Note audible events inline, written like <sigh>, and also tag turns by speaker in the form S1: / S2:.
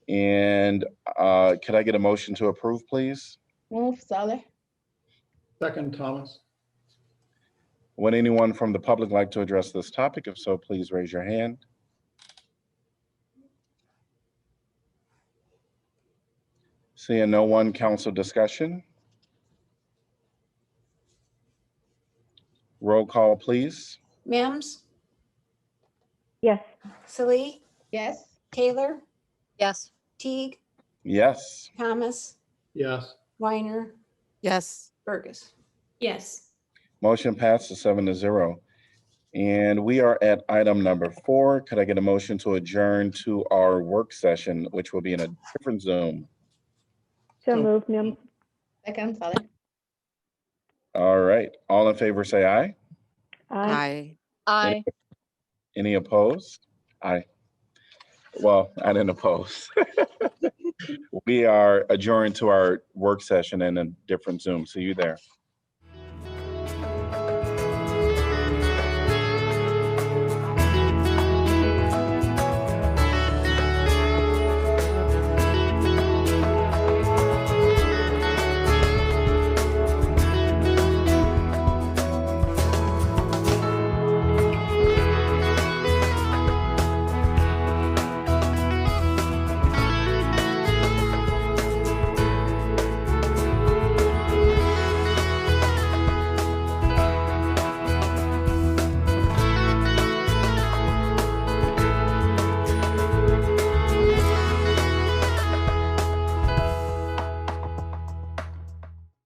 S1: And uh, could I get a motion to approve, please?
S2: Move Saleh.
S3: Second, Thomas.
S1: Would anyone from the public like to address this topic? If so, please raise your hand. Seeing no one, council discussion? Roll call, please.
S4: Mims,
S5: yes,
S4: Salee,
S2: Yes.
S4: Taylor,
S6: Yes.
S4: Teague,
S1: Yes.
S4: Thomas,
S3: Yes.
S4: Weiner,
S6: Yes.
S4: Burgess.
S7: yes.
S1: Motion passes seven to zero. And we are at item number four. Could I get a motion to adjourn to our work session, which will be in a different Zoom?
S5: so
S3: So-
S5: moved, Mims,
S2: Second Saleh.
S1: All right, all in favor, say aye.
S5: aye.
S6: Aye.
S1: Any opposed? Aye. Well, I didn't oppose. <laughs> We are adjourned to our work session in a different Zoom. See you there.